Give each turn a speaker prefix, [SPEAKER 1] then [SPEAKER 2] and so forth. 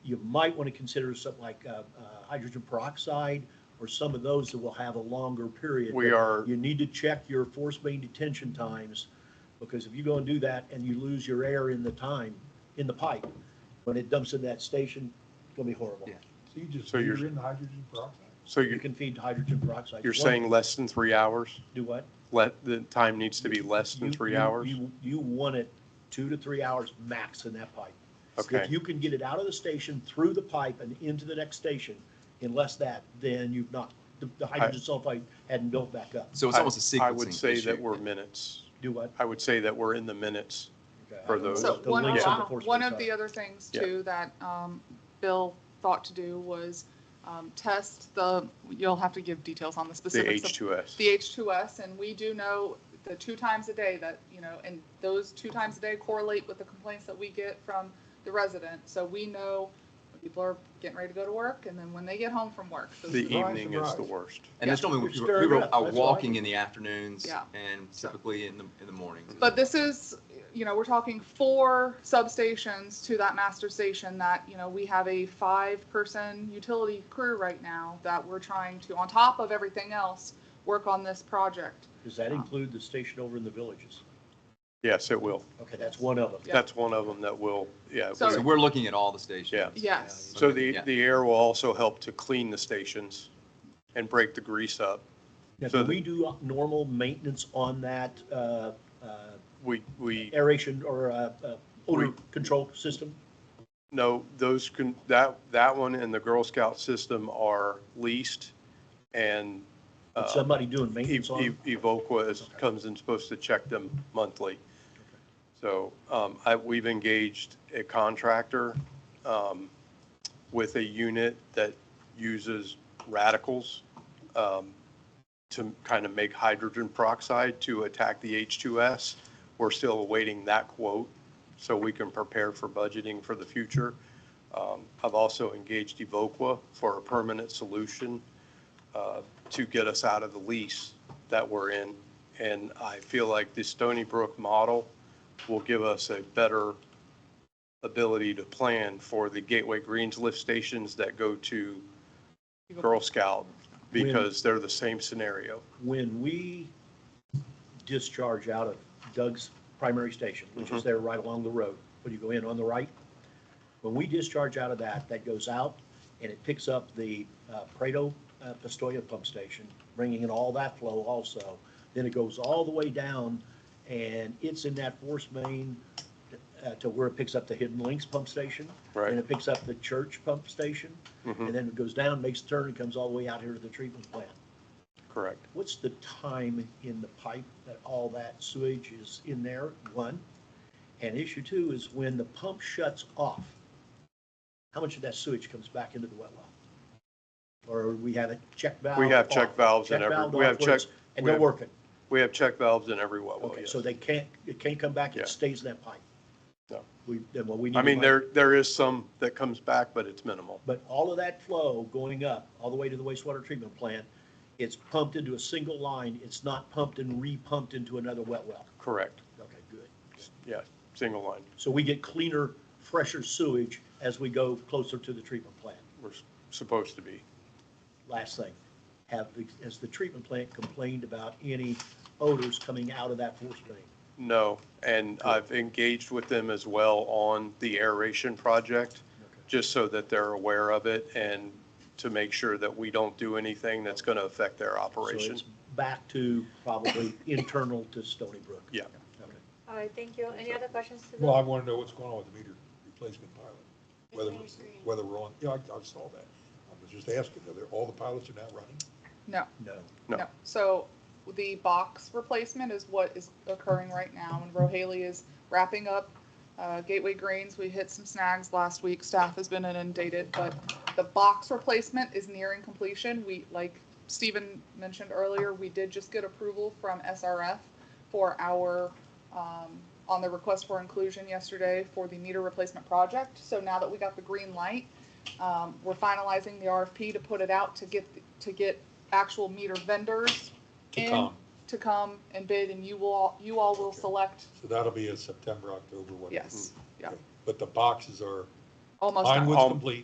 [SPEAKER 1] You might want to consider something like uh, uh, hydrogen peroxide or some of those that will have a longer period.
[SPEAKER 2] We
[SPEAKER 1] But
[SPEAKER 2] are-
[SPEAKER 1] You need to check your force main detention times, because if you go and do that and you lose your air in the time, in the pipe, when it dumps in that station, it's gonna be horrible.
[SPEAKER 2] Yeah.
[SPEAKER 3] So you just
[SPEAKER 2] So you're-
[SPEAKER 3] figure in the hydrogen peroxide.
[SPEAKER 2] So
[SPEAKER 1] You
[SPEAKER 2] you're,
[SPEAKER 1] can feed hydrogen peroxide.
[SPEAKER 2] you're
[SPEAKER 1] One-
[SPEAKER 2] saying less than three hours?
[SPEAKER 1] Do what?
[SPEAKER 2] Let, the time needs to be less than
[SPEAKER 1] You-
[SPEAKER 2] three
[SPEAKER 1] you-
[SPEAKER 2] hours?
[SPEAKER 1] You, you want it two to three hours max in that pipe.
[SPEAKER 2] Okay.
[SPEAKER 1] If you can get it out of the station, through the pipe and into the next station, unless that, then you've not, the the hydrogen sulfide hadn't built back up.
[SPEAKER 4] So it's
[SPEAKER 2] I-
[SPEAKER 4] almost a sequencing
[SPEAKER 2] I would say that
[SPEAKER 4] issue.
[SPEAKER 2] we're minutes.
[SPEAKER 1] Do what?
[SPEAKER 2] I would say that we're in the minutes.
[SPEAKER 1] Okay, I
[SPEAKER 2] For
[SPEAKER 1] don't know
[SPEAKER 2] those-
[SPEAKER 5] So
[SPEAKER 1] what the
[SPEAKER 5] one
[SPEAKER 1] links on the
[SPEAKER 5] of,
[SPEAKER 1] force
[SPEAKER 5] one
[SPEAKER 1] main
[SPEAKER 5] of
[SPEAKER 1] are.
[SPEAKER 5] the other things
[SPEAKER 2] Yeah.
[SPEAKER 5] too that um, Bill thought to do was um, test the, you'll have to give details on the
[SPEAKER 2] The
[SPEAKER 5] specifics of the
[SPEAKER 2] H2S.
[SPEAKER 5] H2S, and we do know the two times a day that, you know, and those two times a day correlate with the complaints that we get from the resident. So we know when people are getting ready to go to work, and then when they get home from work. Those
[SPEAKER 2] The
[SPEAKER 5] are the-
[SPEAKER 3] Surprise,
[SPEAKER 2] evening is the
[SPEAKER 3] surprise.
[SPEAKER 2] worst.
[SPEAKER 4] And that's normally when
[SPEAKER 1] You're
[SPEAKER 4] people, people
[SPEAKER 1] stirring up,
[SPEAKER 4] are
[SPEAKER 1] that's
[SPEAKER 4] walking
[SPEAKER 1] right.
[SPEAKER 4] in the afternoons
[SPEAKER 5] Yeah.
[SPEAKER 4] and typically in the, in the mornings.
[SPEAKER 5] But this is, you know, we're talking four substations to that master station that, you know, we have a five-person utility crew right now that we're trying to, on top of everything else, work on this project.
[SPEAKER 1] Does that include the station over in the villages?
[SPEAKER 2] Yes, it will.
[SPEAKER 1] Okay, that's one of them.
[SPEAKER 5] Yeah.
[SPEAKER 2] That's one of them that will, yeah.
[SPEAKER 5] So-
[SPEAKER 2] we-
[SPEAKER 4] So we're looking at all the stations.
[SPEAKER 5] Yes,
[SPEAKER 2] So the,
[SPEAKER 4] Yeah.
[SPEAKER 2] the air will also help to clean the stations and break the grease up.
[SPEAKER 1] Now,
[SPEAKER 2] So
[SPEAKER 1] do
[SPEAKER 2] the-
[SPEAKER 1] we do normal maintenance on that uh, uh,
[SPEAKER 2] We, we,
[SPEAKER 1] aeration or uh, uh, odor
[SPEAKER 2] We-
[SPEAKER 1] control system?
[SPEAKER 2] no, those can, that, that one and the Girl Scout system are leased and
[SPEAKER 1] Would
[SPEAKER 2] uh,
[SPEAKER 1] somebody doing
[SPEAKER 2] E-
[SPEAKER 1] maintenance on?
[SPEAKER 2] E- Evoqua is, comes and supposed to check them monthly. So, um, I, we've engaged a contractor, um, with a unit that uses radicals, um, to kind of make hydrogen peroxide to attack the H2S. We're still awaiting that quote so we can prepare for budgeting for the future. Um, I've also engaged Evoqua for a permanent solution uh, to get us out of the lease that we're in. And I feel like the Stony Brook model will give us a better ability to plan for the Gateway Greens lift stations that go to Girl Scout because they're the same scenario.
[SPEAKER 1] when we discharge out of Doug's primary station, which is there right along the road, when you go in on the right, when we discharge out of that, that goes out and it picks up the uh, Prado uh, Pistoia pump station, bringing in all that flow also. Then it goes all the way down and it's in that force main uh, to where it picks up the Hidden Links pump station.
[SPEAKER 2] Right.
[SPEAKER 1] And it picks up the church pump station. And then it goes down, makes a turn, and comes all the way out here to the treatment plant.
[SPEAKER 2] Correct.
[SPEAKER 1] What's the time in the pipe that all that sewage is in there, one? And issue two is when the pump shuts off, how much of that sewage comes back into the wet well? Or we have a check valve?
[SPEAKER 2] We have check
[SPEAKER 1] off-
[SPEAKER 2] valves in
[SPEAKER 1] check
[SPEAKER 2] every-
[SPEAKER 1] valve
[SPEAKER 2] we have
[SPEAKER 1] off where
[SPEAKER 2] check-
[SPEAKER 1] it's- And
[SPEAKER 2] we
[SPEAKER 1] they're
[SPEAKER 2] have-
[SPEAKER 1] working.
[SPEAKER 2] We have check valves in every well, well,
[SPEAKER 1] Okay,
[SPEAKER 2] yes.
[SPEAKER 1] so they can't, it can't come back,
[SPEAKER 2] Yeah.
[SPEAKER 1] it stays in that pipe.
[SPEAKER 2] No.
[SPEAKER 1] We, then what we need.
[SPEAKER 2] I
[SPEAKER 1] to
[SPEAKER 2] mean,
[SPEAKER 1] find-
[SPEAKER 2] there, there is some that comes back, but it's minimal.
[SPEAKER 1] But all of that flow going up, all the way to the wastewater treatment plant, it's pumped into a single line. It's not pumped and re-pumped into another wet well.
[SPEAKER 2] Correct.
[SPEAKER 1] Okay, good.
[SPEAKER 2] Yeah, single line.
[SPEAKER 1] So we get cleaner, fresher sewage as we go closer to the treatment plant.
[SPEAKER 2] We're s- supposed to be.
[SPEAKER 1] Last thing, have, the- has the treatment plant complained about any odors coming out of that force main?
[SPEAKER 2] No, and I've engaged with them as well on the aeration project, just so that they're aware of it and to make sure that we don't do anything that's going to affect their
[SPEAKER 1] So
[SPEAKER 2] operation.
[SPEAKER 1] it's back to probably internal to Stony Brook.
[SPEAKER 2] Yeah.
[SPEAKER 1] Okay.
[SPEAKER 6] All right, thank you. Any other questions to the?
[SPEAKER 3] Well, I want to know what's going on with the meter replacement pilot, whether, we're- whether we're on, yeah, I, I saw that. I was just asking, are there, all the pilots are now running?
[SPEAKER 5] no.
[SPEAKER 1] No.
[SPEAKER 2] No.
[SPEAKER 5] So the box replacement is what is occurring right now, and Rohaley is wrapping up uh, Gateway Greens. We hit some snags last week. Staff has been inundated, but the box replacement is nearing completion. We, like Stephen mentioned earlier, we did just get approval from SRF for our, um, on the request for inclusion yesterday for the meter replacement project. So now that we got the green light, um, we're finalizing the RFP to put it out to get, to get actual meter vendors.
[SPEAKER 3] To
[SPEAKER 5] in-
[SPEAKER 3] come.
[SPEAKER 5] To come and bid, and you will, all you all will
[SPEAKER 3] Okay.
[SPEAKER 5] select,
[SPEAKER 3] So that'll Mm-hmm. be a September, October, whatever.
[SPEAKER 5] yes, yeah,
[SPEAKER 3] But the boxes are,
[SPEAKER 5] almost.
[SPEAKER 3] mine
[SPEAKER 5] done.
[SPEAKER 3] was complete.